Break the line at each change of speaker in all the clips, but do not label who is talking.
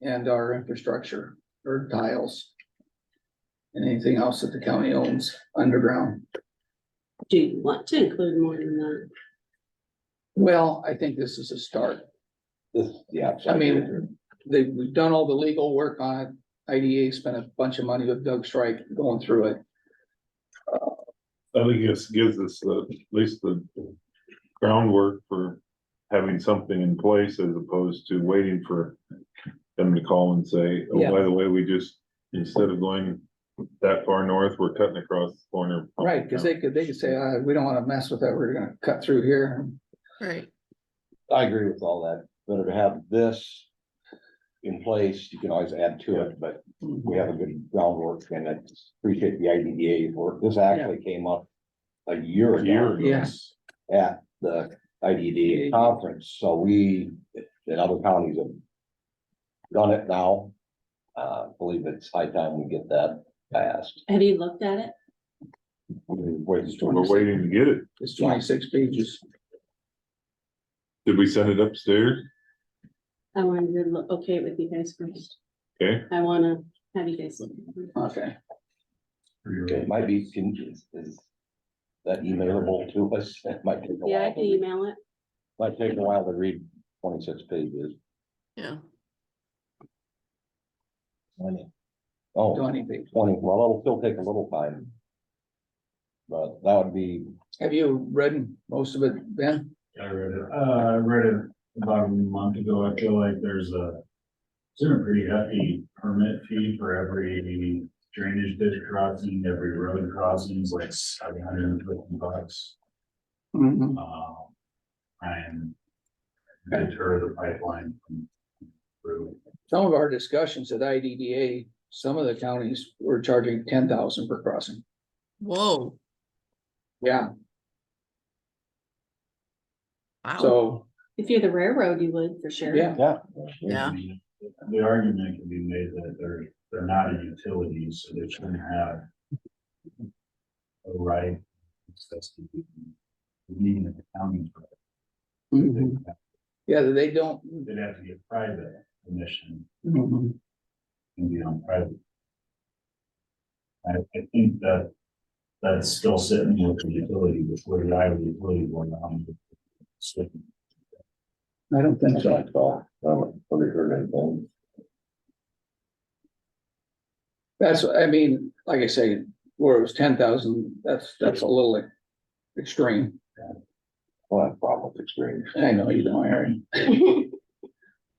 and our infrastructure or tiles. And anything else that the county owns underground.
Do you want to include more than that?
Well, I think this is a start.
This, yeah.
I mean, they, we've done all the legal work on it. IDA spent a bunch of money with Doug Strike going through it.
I think this gives us the, at least the groundwork for having something in place as opposed to waiting for them to call and say,
Yeah.
oh, by the way, we just, instead of going that far north, we're cutting across the corner.
Right, cause they could, they could say, uh, we don't wanna mess with that, we're gonna cut through here.
Right.
I agree with all that, better to have this in place, you can always add to it, but we have a good groundwork and I appreciate the IDDA work, this actually came up a year
A year
ago
ago.
Yes.
at the IDDA conference, so we, and other counties have done it now. Uh, believe it's high time we get that passed.
Have you looked at it?
Wait, it's
We're waiting to get it.
It's twenty-six pages.
Did we send it upstairs?
I wanted to look, okay with you guys first.
Okay.
I wanna have you guys look. at it.
Okay,
It might be, can- is, is that emailable to us? It might take a
Yeah, I
while.
can email it.
Might take a while to read twenty-six pages.
Yeah.
Twenty. Oh,
twenty pages.
20. well, it'll still take a little time. But that would be,
Have you read most of it, Ben?
I read it, uh, I read it about a month ago, I feel like there's a. It's a pretty hefty permit fee for every drainage ditch crossing, every road crossing, is like seven hundred and fifty bucks,
Mhm.
um. And deter the pipeline from. through.
Some of our discussions at IDDA, some of the counties were charging ten thousand per crossing.
Whoa.
Yeah,
Wow.
so,
If you're the railroad, you would for sure.
yeah,
yeah.
Yeah.
The argument can be made that they're, they're not a utility, so they shouldn't have. A right. access to the- Needing the county. for it.
Mhm. yeah, they don't.
They'd have to get private permission
mhm.
and be on private. I, I think that, that's still sitting with the utility, with where the Iowa utility going on.
I don't think
That's
so.
what I thought. I haven't really heard anything.
That's, I mean, like I say, where it was ten thousand, that's, that's a little extreme.
Well, that's problem with extremes.
I know you don't, Aaron.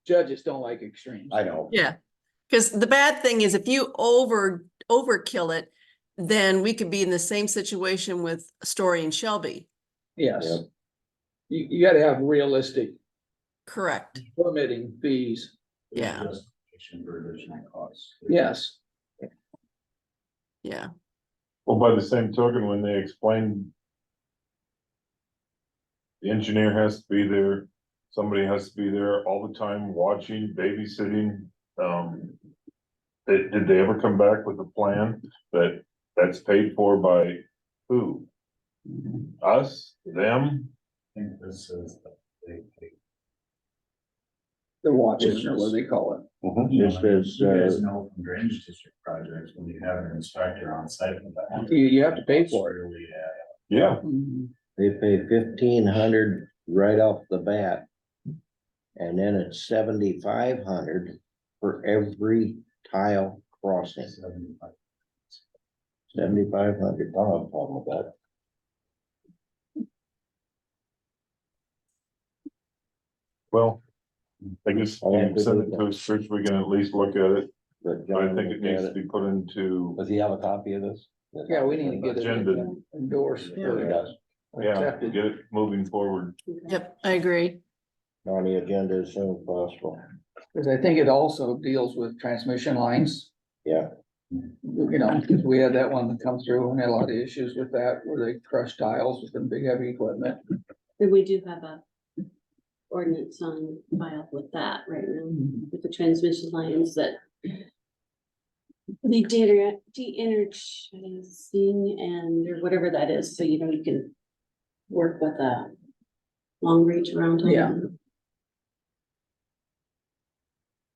Judges don't like extremes.
I know.
Yeah. Because the bad thing is if you over, overkill it, then we could be in the same situation with Story and Shelby.
Yes.
Yep.
You, you gotta have realistic
Correct.
permitting fees.
Yeah.
Justification for additional costs.
Yes,
Yeah.
Well, by the same token, when they explain the engineer has to be there, somebody has to be there all the time, watching, babysitting, um. Did, did they ever come back with a plan that, that's paid for by who?
Mm-hmm.
Us, them?
I think this is, the- they, they,
they're watching, or what do they call it.
Mhm.
you
This
know,
is,
you guys
uh,
know from drainage district projects, when you have an inspector on site. for that.
You, you have to pay for it.
Really, uh,
Yeah,
Mm-hmm.
they pay fifteen hundred right off the bat. And then it's seventy-five hundred for every tile crossing.
Seventy-five.
Seventy-five hundred, I don't have a problem with that.
well, I guess,
Okay.
send it to us, first, we can at least look at it,
But
but I
John
think it
looked
needs
at
to
it.
be put into,
Does he have a copy of this?
Yeah, we need to get it
Agenda.
endorsed
He
or
does.
yeah,
accepted.
get it moving forward.
Okay.
Yep, I agree.
On the agenda as soon as possible.
Cause I think it also deals with transmission lines.
Yeah.
You know, 'cause we had that one that come through and had a lot of issues with that, where they crushed tiles with them big heavy equipment.
And we do have a ordinance on file with that right now, with the transmission lines that the de de-energizing and or whatever that is, so you know, you can work with a long reach around.
Yeah.